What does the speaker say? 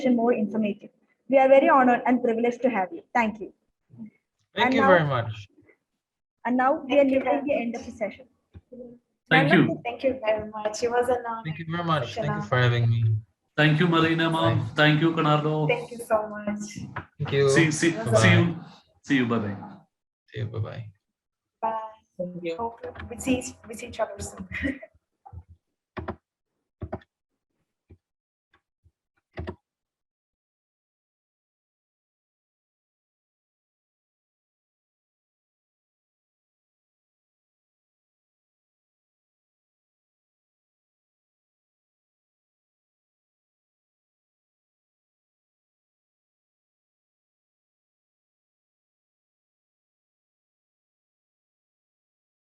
and more informative. We are very honored and privileged to have you. Thank you. Thank And you now- very much. And now we are nearing the end of the session. Thank Marina, you. Thank you very much. It was an honor. Thank you very much. Thank you Shana. for having me. Thank you, Marina ma'am. Thank you, Conardo. Thank you so much. Thank you. See, see, see you. See you. Bye bye. See you. Bye bye. Bye. Hope we see, we see each other soon.